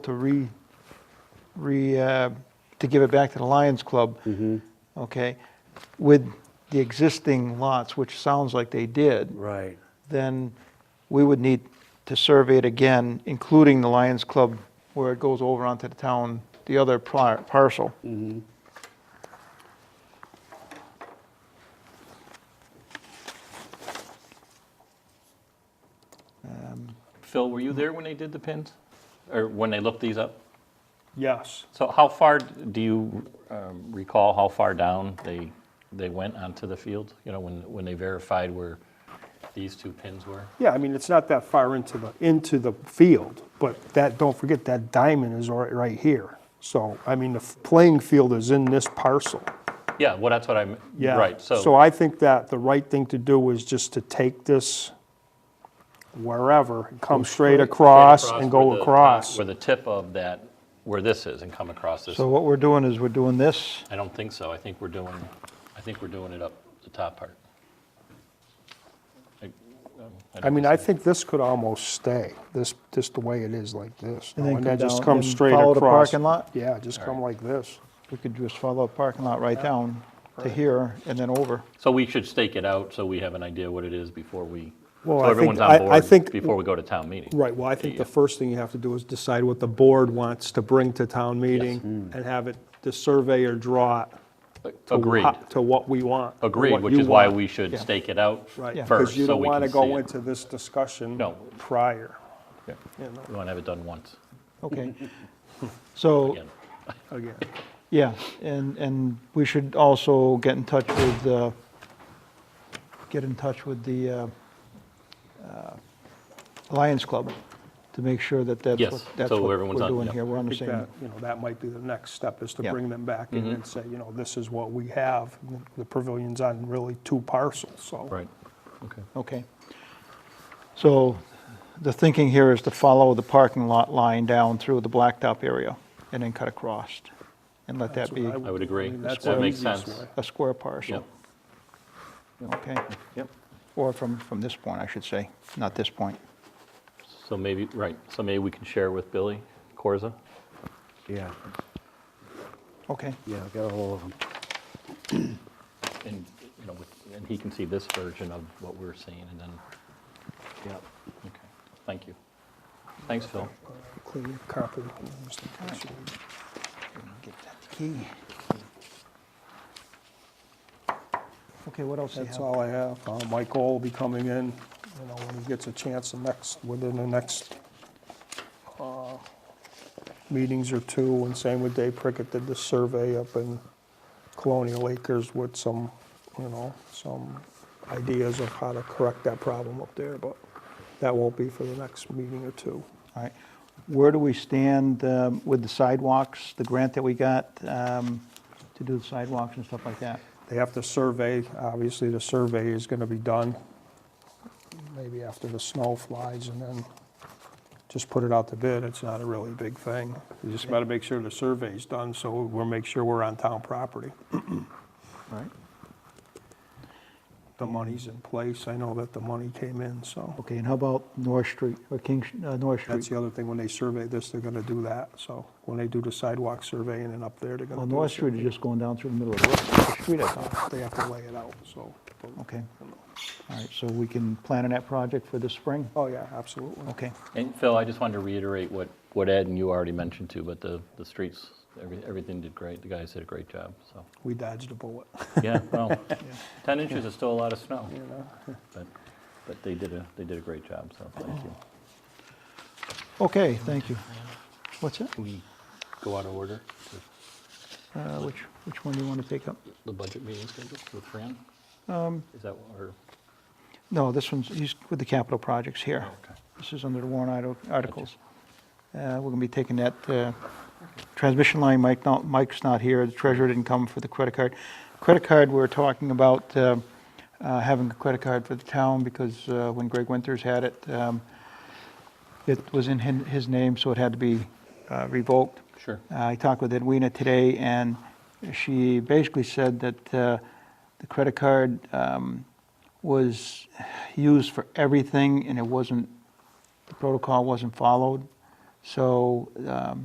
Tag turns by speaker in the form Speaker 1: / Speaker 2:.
Speaker 1: to re, re, uh, to give it back to the Lions Club, okay, with the existing lots, which sounds like they did,
Speaker 2: Right.
Speaker 1: then we would need to survey it again, including the Lions Club, where it goes over onto the town, the other par- parcel.
Speaker 3: Phil, were you there when they did the pins? Or when they looked these up?
Speaker 4: Yes.
Speaker 3: So how far, do you um, recall how far down they, they went onto the field? You know, when, when they verified where these two pins were?
Speaker 4: Yeah, I mean, it's not that far into the, into the field, but that, don't forget, that diamond is right, right here. So, I mean, the f- playing field is in this parcel.
Speaker 3: Yeah, well, that's what I'm,
Speaker 4: Yeah.
Speaker 3: right,
Speaker 4: So
Speaker 3: so,
Speaker 4: I think that the right thing to do is just to take this wherever, come straight across and
Speaker 3: where
Speaker 4: go
Speaker 3: the-
Speaker 4: across.
Speaker 3: Where the tip of that, where this is and come across this.
Speaker 1: So what we're doing is we're doing this,
Speaker 3: I don't think so. I think we're doing, I think we're doing it up the top part. I- um,
Speaker 4: I
Speaker 3: don't
Speaker 4: mean, I think this could almost stay, this, just the way it is like this.
Speaker 1: And then come
Speaker 4: just
Speaker 1: down
Speaker 4: comes
Speaker 1: and
Speaker 4: straight
Speaker 1: follow the
Speaker 4: across.
Speaker 1: parking lot?
Speaker 4: Yeah, just come like this.
Speaker 1: we could just follow the parking lot right down to here and then over.
Speaker 3: So we should stake it out so we have an idea what it is before we,
Speaker 2: Well,
Speaker 3: so
Speaker 2: I think-
Speaker 3: everyone's
Speaker 4: I- I
Speaker 3: on board
Speaker 4: think-
Speaker 3: before we go to town meeting.
Speaker 4: Right, well, I think the first thing you have to do is decide what the board wants to bring to town meeting
Speaker 3: Mm.
Speaker 4: and have it, the surveyor draw it to
Speaker 3: Agreed,
Speaker 4: wha- to what we want. or
Speaker 3: agreed,
Speaker 4: what
Speaker 3: which
Speaker 4: you
Speaker 3: is why
Speaker 4: want.
Speaker 3: we should
Speaker 1: Yeah.
Speaker 3: stake it out
Speaker 4: Right,
Speaker 1: Yeah.
Speaker 3: first,
Speaker 4: because you
Speaker 3: so
Speaker 4: don't
Speaker 3: we
Speaker 4: want
Speaker 3: can
Speaker 4: to
Speaker 3: see
Speaker 4: go
Speaker 3: it.
Speaker 4: into this discussion
Speaker 3: No.
Speaker 4: prior.
Speaker 3: Yeah.
Speaker 4: you know,
Speaker 3: We want to have it done once,
Speaker 1: Okay. So,
Speaker 3: again.
Speaker 4: Again,
Speaker 1: yeah, and, and we should also get in touch with, uh, get in touch with the uh, uh, Lions Club to make sure that that's
Speaker 3: Yes,
Speaker 1: what, that's
Speaker 3: so
Speaker 1: what
Speaker 3: everyone's
Speaker 1: we're
Speaker 3: on-
Speaker 1: doing
Speaker 3: yep.
Speaker 1: here. We're on
Speaker 4: I
Speaker 1: the
Speaker 4: think
Speaker 1: same,
Speaker 4: that, you know, that might be the next step, is to
Speaker 1: Yeah.
Speaker 4: bring them back in
Speaker 3: Mm-hmm.
Speaker 4: and say, you know, this is what we have. The pavilion's on really two parcels, so.
Speaker 3: Right, okay.
Speaker 1: okay. So the thinking here is to follow the parking lot line down through the blacktop area and then cut across and let
Speaker 4: That's
Speaker 1: that be
Speaker 4: what
Speaker 3: I would
Speaker 4: do.
Speaker 3: agree.
Speaker 4: mean, that's
Speaker 3: That
Speaker 4: the
Speaker 3: makes
Speaker 4: easiest
Speaker 3: sense.
Speaker 4: way.
Speaker 1: a square parcel.
Speaker 3: Yep.
Speaker 1: Okay. Yep. Or from, from this point, I should say, not this point.
Speaker 3: So maybe, right, so maybe we can share with Billy Corza.
Speaker 2: Yeah,
Speaker 1: Okay.
Speaker 2: yeah, I got a hold of them.
Speaker 3: And, you know, with- and he can see this version of what we're seeing, and then,
Speaker 2: Yeah.
Speaker 3: okay, thank you. Thanks, Phil.
Speaker 4: Clean your copy, Mr. Cassidy.
Speaker 1: Give that the key. Okay, what else do you
Speaker 4: That's
Speaker 1: have?
Speaker 4: all I have. Uh, Michael will be coming in, you know, when he gets a chance, the next, within the next uh, meetings or two, and same with Dave Prickett did the survey up in Colonial Acres with some, you know, some ideas of how to correct that problem up there, but that won't be for the next meeting or two.
Speaker 1: All right. Where do we stand um, with the sidewalks, the grant that we got um, to do the sidewalks and stuff like that?
Speaker 4: They have to survey, obviously, the survey is gonna be done maybe after the snow flies, and then just put it out to bid, it's not a really big thing. You just gotta make sure the survey's done, so we'll make sure we're on town property.
Speaker 1: All Right?
Speaker 4: The money's in place, I know that the money came in, so.
Speaker 1: Okay, and how about North Street, or King, uh, North
Speaker 4: That's
Speaker 1: Street?
Speaker 4: the other thing, when they survey this, they're gonna do that, so when they do the sidewalk survey and then up there, they're gonna
Speaker 1: Well,
Speaker 4: do.
Speaker 1: North
Speaker 4: the
Speaker 1: Street is
Speaker 4: survey.
Speaker 1: just going down through the middle of the street, I thought.
Speaker 4: They have to lay it out, so.
Speaker 1: Okay. All right, so we can plan on that project for this spring?
Speaker 4: Oh, yeah, absolutely.
Speaker 1: Okay.
Speaker 3: And Phil, I just wanted to reiterate what, what Ed and you already mentioned too, but the, the streets, every- everything did great. The guys did a great job, so.
Speaker 4: We dodged a bullet.
Speaker 3: Yeah, well, 10 inches is still a lot of snow. But, but they did a, they did a great job, so thank you.
Speaker 1: Okay, thank you. What's that?
Speaker 3: We go out of order to
Speaker 1: Uh, Which, which one do you want to take up?
Speaker 3: the budget meeting schedule with Fran? Is that, what- or,
Speaker 1: No, this one's, he's with the capital projects here.
Speaker 3: okay.
Speaker 1: This is under the warrant arti- articles. Uh, We're going to be taking that uh, transmission line, Mike, not- Mike's not here, the treasurer didn't come for the credit card. Credit card, we're talking about uh, uh, having a credit card for the town, because uh, when Greg Winters had it, um, it was in hin- his name, so it had to be uh, revoked.
Speaker 3: sure.
Speaker 1: Uh, I talked with Edwina today, and she basically said that uh, the credit card um, was used for everything, and it wasn't, the protocol wasn't followed. So um,